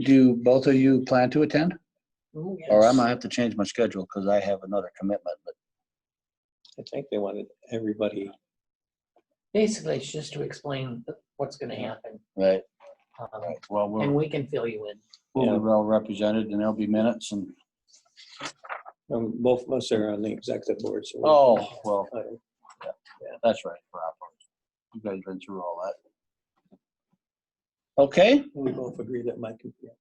Do both of you plan to attend? Oh, Or I'm yes. gonna have to change my schedule because I have another commitment, but I think they wanted everybody. Basically, it's just to explain th- what's gonna happen. right, um, right. Well, And we'll, we can fill you in. we'll be well represented and there'll be minutes and, Um, both of us are on the executive board, so. we're- oh, well, Uh, that's right. for operations. You guys been through all that. Okay. We both agree that Mike. can be on.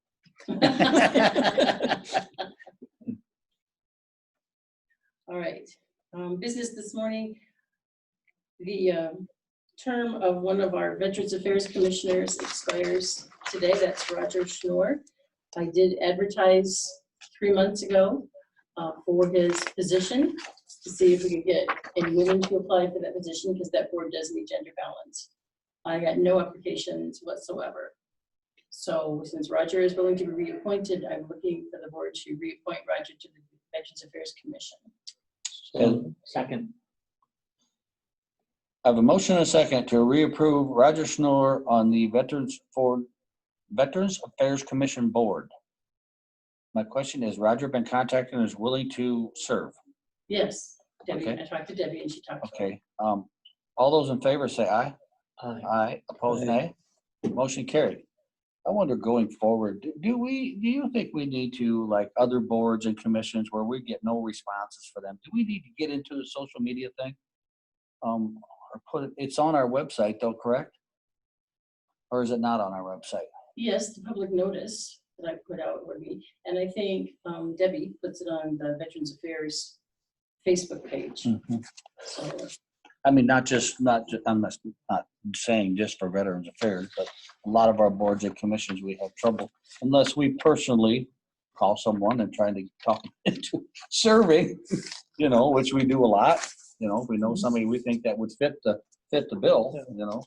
All right, um, business this morning. The, um, term of one of our Veterans Affairs Commissioners expires today. That's Roger Schnorr. I did advertise three months ago, uh, for his position to see if we could get any women to apply for that position because that board does need gender balance. I got no applications whatsoever. So since Roger is willing to be reappointed, I'm looking for the board to reappoint Roger to the Veterans Affairs Commission. And- Second, I have a motion and a second to reapprove Roger Schnorr on the Veterans for Veterans Affairs Commission Board. My question is, Roger been contacted and is willing to serve? Yes, Debbie, Okay. I talked to Debbie and she talked to me. Okay, um, all those in favor say aye. uh, Aye, opposed nay. Motion carried. I wonder going forward, do- do we, do you think we need to, like other boards and commissions where we get no responses for them? Do we need to get into the social media thing? Um, or put, it it's on our website though, correct? Or is it not on our website? Yes, the public notice that I put out would be, and I think um, Debbie puts it on the Veterans Affairs Facebook page. Hmm. So I mean, not just, not, ju- I'm not, not saying just for Veterans Affairs, but a lot of our boards and commissions, we have trouble unless we personally call someone and trying to talk them into serving, you know, which we do a lot. You know, if we know somebody we think that would fit the, fit the bill, you know.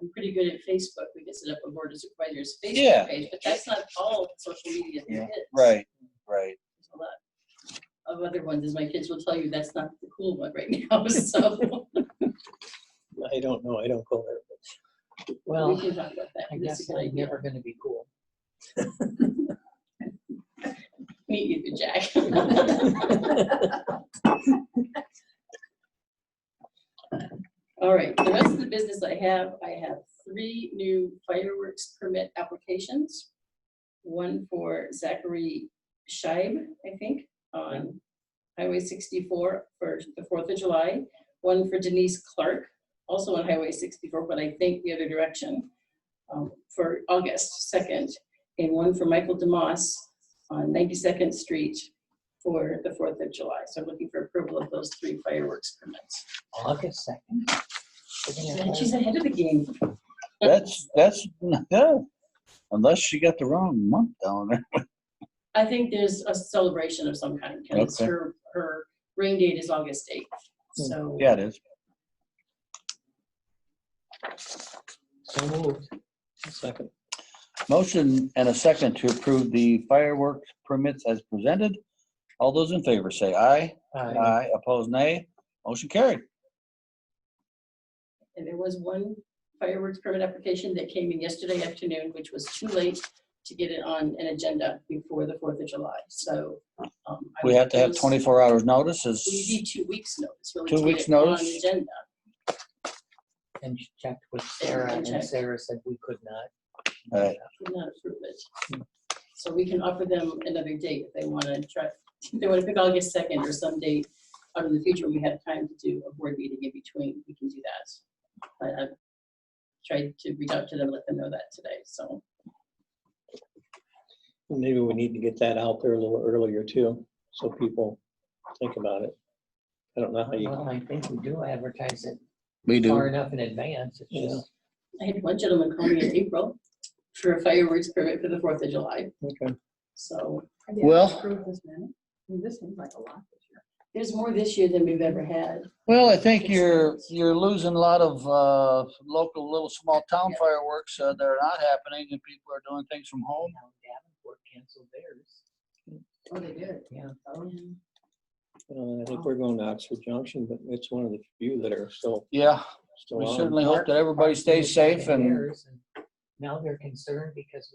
I'm pretty good at Facebook. We can set up a board of supervisors Yeah. Facebook page, but that's not all social media Yeah, that hits. right. There's a lot Of other ones, as my kids will tell you, that's not the cool one right now, so I don't know. I don't go there. we well, can talk about that. I That's a guess good I'm idea. never gonna be cool. Meet you, Jack. All right, the rest of the business I have, I have three new fireworks permit applications. One for Zachary Scheib, I think, on Highway sixty-four for the Fourth of July. One for Denise Clark, also on Highway sixty-four, but I think the other direction, um, for August second. And one for Michael DeMoss on 92nd Street for the 4th of July. So I'm looking for approval of those three fireworks permits. August second. We're gonna And have- She's ahead of the game. That's, that's, yeah, unless she got the wrong month down there. I think there's a celebration of some kind. 'cause Okay. Hmm. Her, her ring date is August 8th. So Yeah, it is. So moved. Second, Motion and a second to approve the fireworks permits as presented. All those in favor say aye. Aye. Aye, opposed nay. Motion carried. And there was one fireworks permit application that came in yesterday afternoon, which was too late to get it on an agenda before the 4th of July. So. um, I We have to have propose- 24 hours We notices. need two weeks' notice. really, Two to get weeks' it on notice? Agenda. And she checked with Sarah, and And checked. Sarah said we could not. Uh, Right. did not approve it. So we can offer them another date if they want to try, if they want to pick August second or some date out in the future, when we have time to do a board meeting in between, we can do that. But I've tried to reach out to them, let them know that today, so. maybe we need to get that out there a little earlier too, so people think about it. I don't know how Uh, you. Well, I think we do advertise it We far enough in advance. It's Yeah. just, I had one gentleman call me in April for a fireworks permit for the Fourth of July, Okay. so Have you Well- approved this many? I mean, This seems like a lot this year. there's more this year than we've ever had. Well, I think you're, you're losing a lot of uh, local little small town Yeah. fireworks uh, that are not happening and people are doing things from you home. know, Davenport canceled theirs. Oh, they did? Yeah. Oh, Uh, I think we're going to Oxford Junction, but it's one of the few that are still, Yeah, still we on. certainly hope that everybody stays safe and Theirs, and now they're concerned because